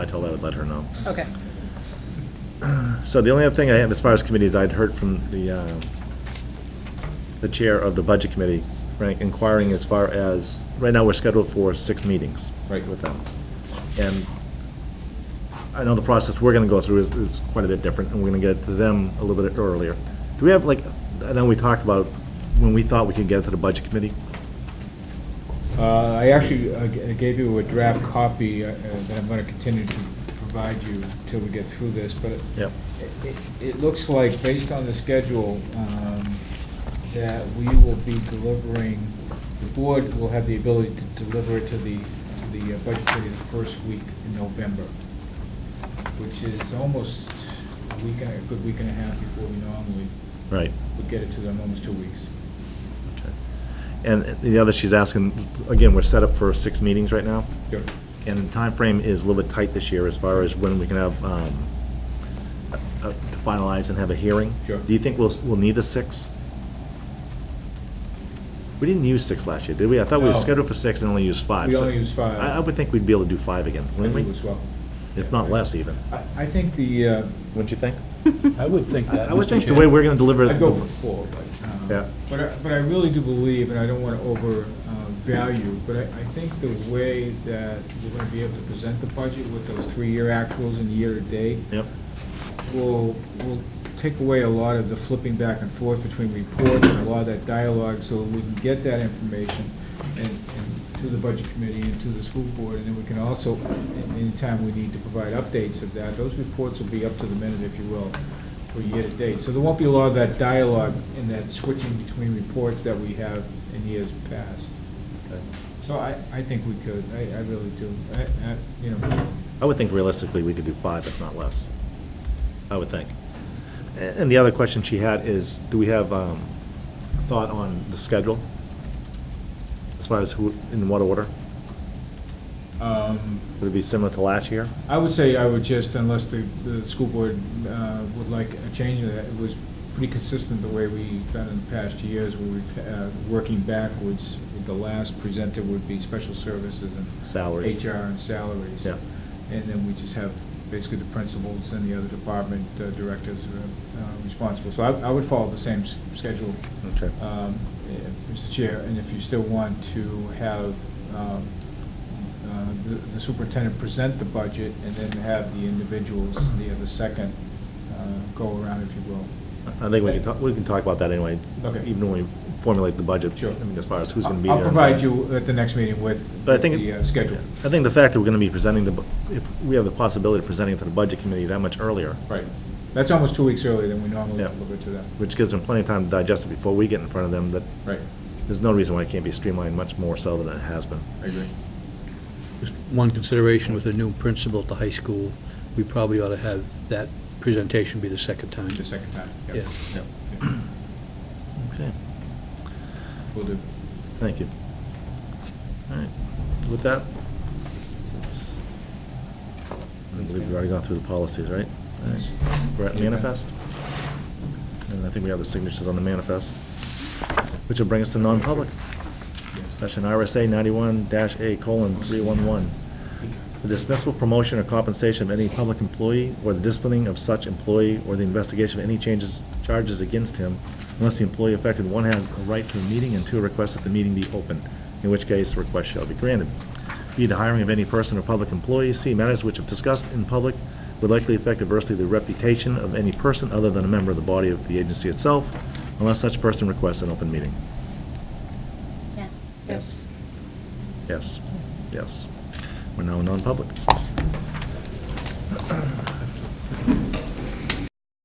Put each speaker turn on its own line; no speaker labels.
told her I would let her know.
Okay.
So the only other thing I have as far as committees, I'd heard from the, uh, the chair of the budget committee, right, inquiring as far as, right now, we're scheduled for six meetings.
Right.
With them. And I know the process we're gonna go through is, is quite a bit different, and we're gonna get to them a little bit earlier. Do we have, like, I know we talked about when we thought we could get to the budget committee.
Uh, I actually uh, g- gave you a draft copy uh, uh, that I'm going to continue to provide you till we get through this, but it-
Yep.
it- it- it looks like, based on the schedule, um, that we will be delivering, the board will have the ability to deliver it to the, to the uh, budget committee the first week in November, which is almost a week, and a a good week and a half before we normally
Right.
would get it to them, almost two weeks.
Okay. And the other, she's asking, again, we're set up for six meetings right now.
Yep.
And the time frame is a little bit tight this year as far as when we can have, um, uh, to finalize and have a hearing.
Sure.
Do you think we'll, we'll need a six? We didn't use six last year, did we? I thought we were
No.
scheduled for six and only used five.
We
so
only used five.
I, I would think we'd be able to do five again, wouldn't
I do as
we?
well.
If not less even.
I, I think the, uh,
Wouldn't you think?
I would think
I
that,
I would
Mr.
think the
Chair.
way we're gonna deliver.
I'd go
the-
for four, but, um,
Yeah.
but I, but I really do believe, and I don't want to overvalue, but I, I think the way that we're going to be able to present the budget with those three-year actuals and year-to-date
Yep,
will, will take away a lot of the flipping back and forth between reports and a lot of that dialogue, so we can get that information and, and to the budget committee and to the school board, and then we can also, a- anytime we need to provide updates of that, those reports will be up to the minute, if you will, for year-to-date. So there won't be a lot of that dialogue and that switching between reports that we have in years past. So I, I think we could, I, I really do, I, I, you know,
I would think realistically, we could do five, if not less. I would think. A- And the other question she had is, do we have um, thought on the schedule? As far as who, in what order?
um,
Would it be similar to last year?
I would say I would just, unless the, the school board uh, would like a change in that, it was pretty consistent the way we've done in the past years, where we've, uh, working backwards, the last presenter would be special services and.
Salaries.
HR and salaries.
Yeah.
And then we just have basically the principals and the other department uh, directors uh, uh, responsible. So I, I would follow the same s- schedule.
Okay.
um, eh, Mr. Chair, and if you still want to have um, uh, the the superintendent present the budget and then have the individuals, the other second, uh, go around, if you will.
I think we can talk, we can talk about that anyway.
Okay.
Even when we formulate the budget.
Sure.
I mean, as far as who's gonna be there.
I'll- I'll provide you at the next meeting with
But I think,
the uh, schedule.
I think the fact that we're gonna be presenting the, bu- if we have the possibility of presenting it to the budget committee that much earlier,
Right. That's almost two weeks earlier than we normally
Yeah.
deliver to them.
which gives them plenty of time to digest it before we get in front of them, that
Right,
there's no reason why it can't be streamlined much more so than it has been.
I agree.
Just One consideration with the new principal at the high school, we probably ought to have that presentation be the second time.
The second time. Yep.
Yeah.
Yep.
Okay.
Will do.
Thank you. All right, with that, I believe we've already gone through the policies, right? All right. We're at manifest, and I think we have the signatures on the manifest, which will bring us to non-public. Session RSA ninety-one dash A colon three one one. The dismissal, promotion, or compensation of any public employee, or the disciplining of such employee, or the investigation of any changes, charges against him, unless the employee affected, one has a right to a meeting, and two, requests that the meeting be open, in which case the request shall be granted. Be the hiring of any person or public employee, C, matters which if discussed in public would likely affect adversely the reputation of any person other than a member of the body of the agency itself, unless such person requests an open meeting.
Yes.
Yes.
Yes, yes. We're now in non-public.